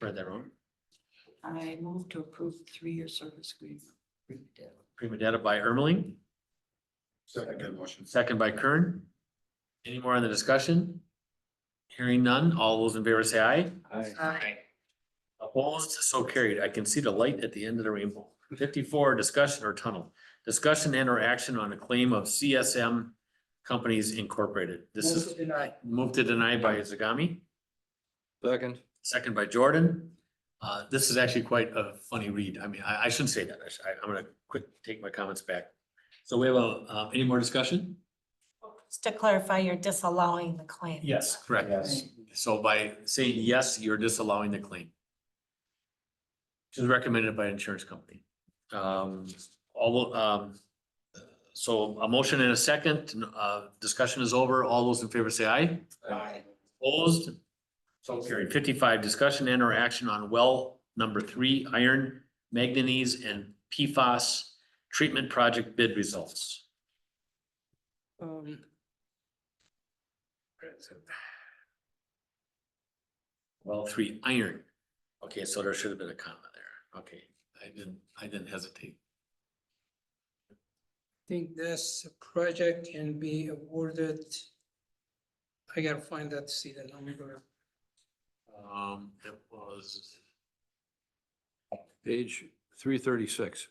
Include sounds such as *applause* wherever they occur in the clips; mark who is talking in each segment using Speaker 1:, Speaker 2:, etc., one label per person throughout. Speaker 1: for their own.
Speaker 2: I move to approve the three-year service agreement. with Dell.
Speaker 1: Prima data by Ermeling,
Speaker 3: Second motion.
Speaker 1: second by Kern. Any more on the discussion? Hearing none, all those in favor say aye. Opposed, so carried. I can see the light at the end of the rainbow. Fifty-four, discussion or tunnel. Discussion and or action on a claim of CSM Companies Incorporated. This
Speaker 2: Move
Speaker 1: is
Speaker 2: to deny.
Speaker 1: move to deny by Zagami,
Speaker 4: Second.
Speaker 1: second by Jordan. Uh, this is actually quite a funny read. I mean, I, I shouldn't say that. I sh- I, am gonna quick take my comments back. So we have a, um, any more discussion?
Speaker 5: Just to clarify, you're disallowing the claim.
Speaker 1: Yes, correct.
Speaker 3: Yes.
Speaker 1: So by saying yes, you're disallowing the claim. Which is recommended by an insurance company. Um, all, um, so a motion and a second, uh, discussion is over. All those in favor say aye. Opposed? So carried. Fifty-five, discussion and or action on well number three, iron, manganese and PFAS treatment project bid results.
Speaker 2: Um,
Speaker 1: Well, three iron. Okay, so there should have been a comma there. Okay, I didn't, I didn't hesitate.
Speaker 6: think this project can be awarded. I gotta find that, see the number.
Speaker 1: Um, it was,
Speaker 4: Page three thirty-six.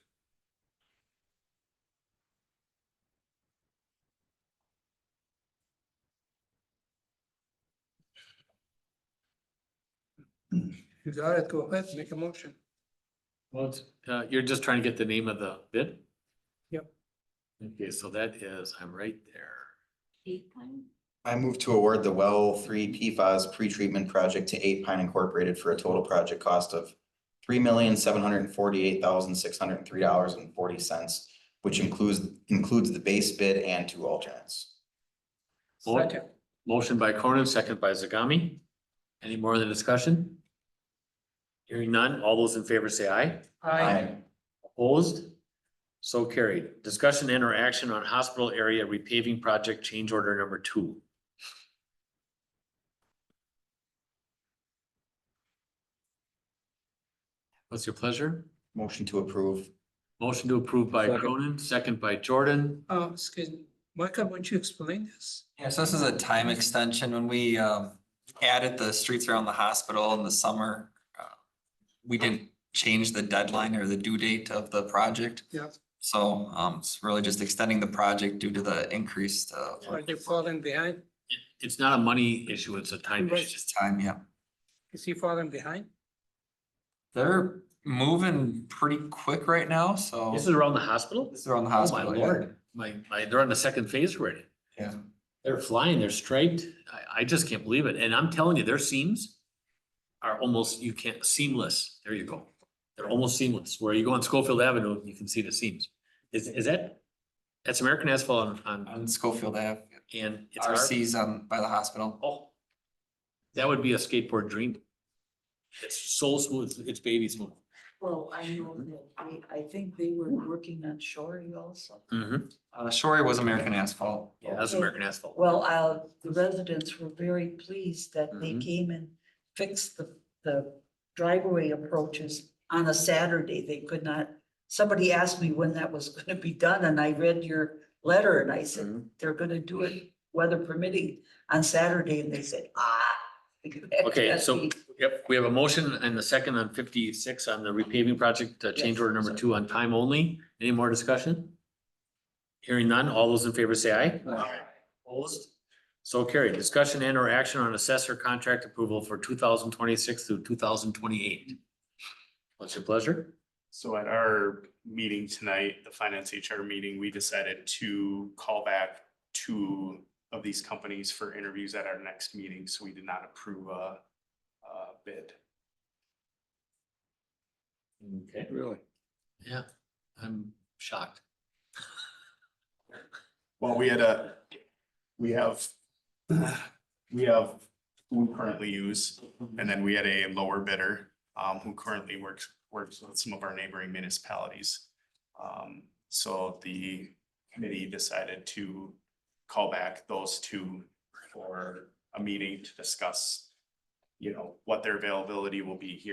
Speaker 6: You got it, go ahead, make a motion.
Speaker 1: well, it's, uh, you're just trying to get the name of the bid?
Speaker 6: Yep.
Speaker 1: Okay, so that is, I'm right there.
Speaker 2: eight time?
Speaker 3: I move to award the well three PFAS pretreatment project to Eight Pine Incorporated for a total project cost of three million, seven hundred and forty-eight thousand, six hundred and three dollars and forty cents, which includes, includes the base bid and two alternates.
Speaker 1: Mo-
Speaker 6: Second.
Speaker 1: Motion by Cronin, second by Zagami. Any more in the discussion? Hearing none, all those in favor say aye.
Speaker 3: Aye.
Speaker 1: Opposed? So carried. Discussion and or action on hospital area repaving project change order number two. What's your pleasure?
Speaker 3: Motion to approve.
Speaker 1: Motion to approve by
Speaker 4: Second.
Speaker 1: Cronin, second by Jordan.
Speaker 6: Uh, excuse me, Michael, would you explain this?
Speaker 7: Yeah, so this is a time extension. When we um added the streets around the hospital in the summer, uh, we didn't change the deadline or the due date of the project.
Speaker 6: Yeah.
Speaker 7: So um it's really just extending the project due to the increased uh
Speaker 6: Are they falling behind?
Speaker 1: It- It's not a money issue, it's a time
Speaker 6: Right.
Speaker 1: issue.
Speaker 7: time, yeah.
Speaker 6: Is he falling behind?
Speaker 7: They're moving pretty quick right now, so
Speaker 1: This is around the hospital?
Speaker 7: this is around the
Speaker 1: Oh, my
Speaker 7: hospital. yeah.
Speaker 1: lord. My, my, they're on the second phase already.
Speaker 7: Yeah.
Speaker 1: They're flying, they're striped. I, I just can't believe it. And I'm telling you, their seams are almost, you can't, seamless. There you go. They're almost seamless. Where you go on Schofield Avenue, you can see the seams. Is, is that, that's American asphalt on, on,
Speaker 7: On Schofield Ave,
Speaker 1: and it's our,
Speaker 7: RC's on by the hospital.
Speaker 1: oh. That would be a skateboard dream. It's so smooth, it's baby smooth.
Speaker 2: Well, I know that, I, I think they were working on Shorey also.
Speaker 1: Mm-hmm.
Speaker 7: Uh Shorey was American asphalt.
Speaker 1: Yeah, that's
Speaker 2: Okay.
Speaker 1: American asphalt.
Speaker 2: Well, uh, the residents were very pleased that they
Speaker 1: Mhm.
Speaker 2: came and fixed the, the driveway approaches on a Saturday. They could not, somebody asked me when that was *laughs* gonna be done and I read your letter and I said,
Speaker 1: Mhm.
Speaker 2: they're gonna do it weather permitting on Saturday and they said, ah. *laughs*
Speaker 1: Okay, so, yep, we have a motion and a second on fifty-six on the repaving project, uh, change
Speaker 2: Yes.
Speaker 1: order number two on time only. Any more discussion? Hearing none, all those in favor say aye.
Speaker 7: Aye.
Speaker 1: Opposed? So carried. Discussion and or action on assessor contract approval for two thousand twenty-six through two thousand twenty-eight. What's your pleasure?
Speaker 8: So at our meeting tonight, the finance HR meeting, we decided to call back two of these companies for interviews at our next meeting, so we did not approve a, a bid.
Speaker 1: Okay.
Speaker 4: Really?
Speaker 1: Yeah, I'm shocked.
Speaker 8: Well, we had a, we have, we have who we currently use, and then we had a lower bidder, um, who currently works, works with some of our neighboring municipalities. Um, so the committee decided to call back those two for a meeting to discuss, you know, what their availability will be here